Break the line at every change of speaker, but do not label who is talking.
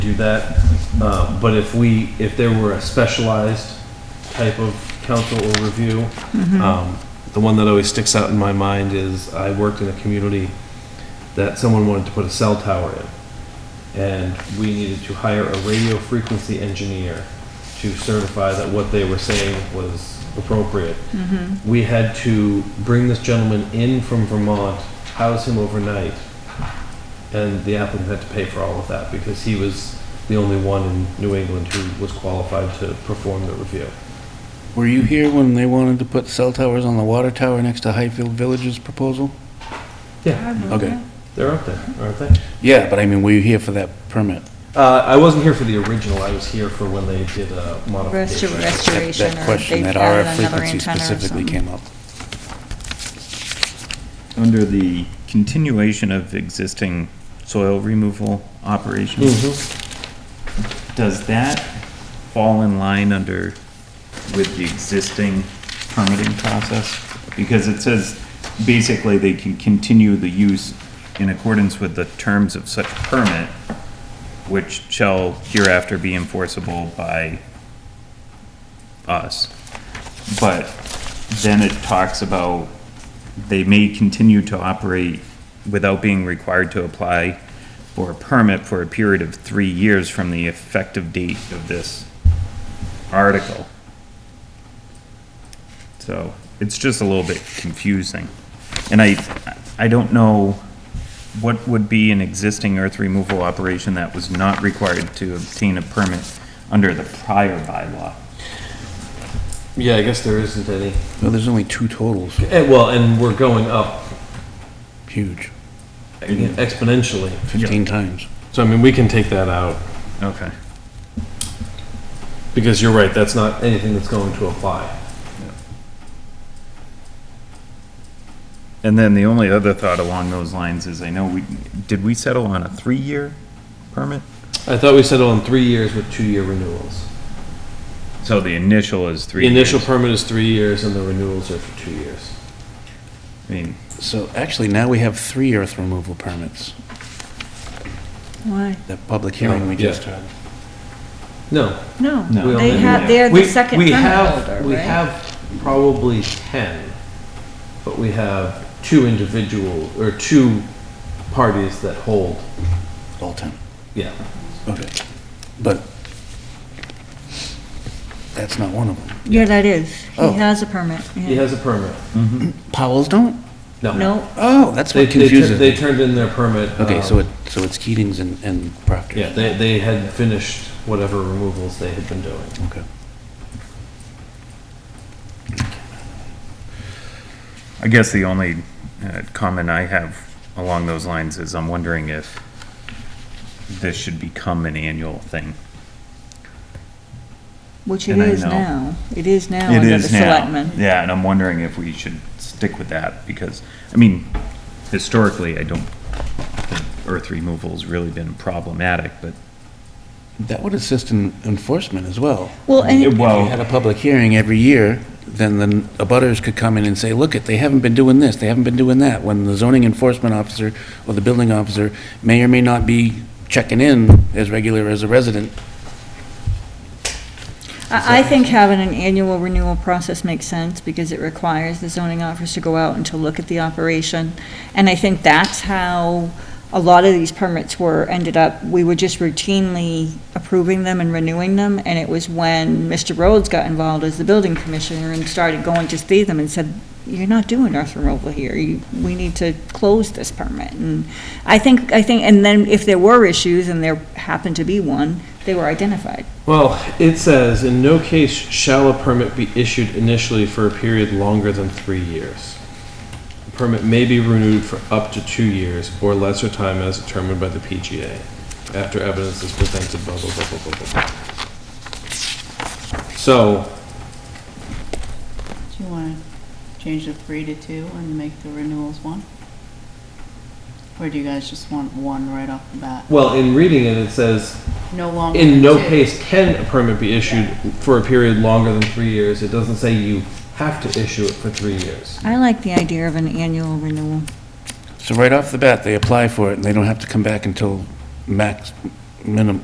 do that. Uh, But if we, if there were a specialized type of council or review, um, the one that always sticks out in my mind is I worked in a community that someone wanted to put a cell tower in. And we needed to hire a radio frequency engineer to certify that what they were saying was appropriate. We had to bring this gentleman in from Vermont, house him overnight, and the applicant had to pay for all of that because he was the only one in New England who was qualified to perform the review.
Were you here when they wanted to put cell towers on the water tower next to Highfield Village's proposal?
Yeah,
Okay.
they're up there, aren't they?
Yeah, but I mean, were you here for that permit?
Uh, I wasn't here for the original, I was here for when they did a
Restor-
modification.
That-
Restoration,
That
or
question,
they've
that
added
RF
another
frequency
antenna or
specifically
something.
came up.
Under the continuation of existing soil removal operations, does that fall in line under, with the existing permitting process? Because it says, basically, they can continue the use in accordance with the terms of such permit, which shall hereafter be enforceable by us. But then it talks about they may continue to operate without being required to apply for a permit for a period of three years from the effective date of this article. So it's just a little bit confusing. And I, I don't know what would be an existing earth removal operation that was not required to obtain a permit under the prior bylaw.
Yeah, I guess there isn't any.
No, there's only two totals,
Eh, Well, and we're going up
huge,
exponentially.
15 times.
So I mean, we can take that out,
Okay.
because you're right, that's not anything that's going to apply.
And then the only other thought along those lines is, I know we, did we settle on a three-year permit?
I thought we settled on three years with two-year renewals.
So the initial is three
The
years.
initial permit is three years and the renewals are for two years.
I mean,
So actually, now we have three earth removal permits,
Why?
that public hearing we
Yeah.
just had.
No,
No,
No.
We
they
only
have,
have-
they're
We-
the second
we
permit
have-
holder,
We
right?
have probably 10, but we have two individual, or two parties that hold,
All 10,
yeah.
okay. But that's not one of them.
Yeah, that is.
Oh.
He has a permit,
He
yeah.
has a permit.
Powell's don't?
No.
No,
Oh, that's
They,
what
they, tur-
confuses
they
me.
turned in their permit.
Okay,
um,
so it, so it's Keating's and and Proctor's.
Yeah, they, they had finished whatever removals they had been doing.
Okay.
I guess the only uh, comment I have along those lines is I'm wondering if this should become an annual thing.
which it
And I
is
know.
now. It is now under the selectmen.
Yeah, and I'm wondering if we should stick with that because, I mean, historically, I don't, think earth removal's really been problematic, but
That would assist in enforcement as well.
Well,
It
and,
If you
Well-
had a public hearing every year, then the abutters could come in and say, look, it, they haven't been doing this, they haven't been doing that, when the zoning enforcement officer or the building officer may or may not be checking in as regular as a resident.
I, I think having an annual renewal process makes sense because it requires the zoning office to go out and to look at the operation. And I think that's how a lot of these permits were, ended up, we were just routinely approving them and renewing them. And it was when Mr. Rhodes got involved as the building commissioner and started going to see them and said, you're not doing earth removal here. You, we need to close this permit. And I think, I think, and then if there were issues, and there happened to be one, they were identified.
Well, it says, in no case shall a permit be issued initially for a period longer than three years. A permit may be renewed for up to two years or lesser time as determined by the PGA after evidence is presented, blah, blah, blah, blah, blah, blah, blah. So,
Do you want to change the three to two and make the renewals one? Or do you guys just want one right off the bat?
well, in reading it, it says,
No longer than
in no
two.
case can a permit be issued for a period longer than three years. It doesn't say you have to issue it for three years.
I like the idea of an annual renewal.
So right off the bat, they apply for it, and they don't have to come back until max, minimum,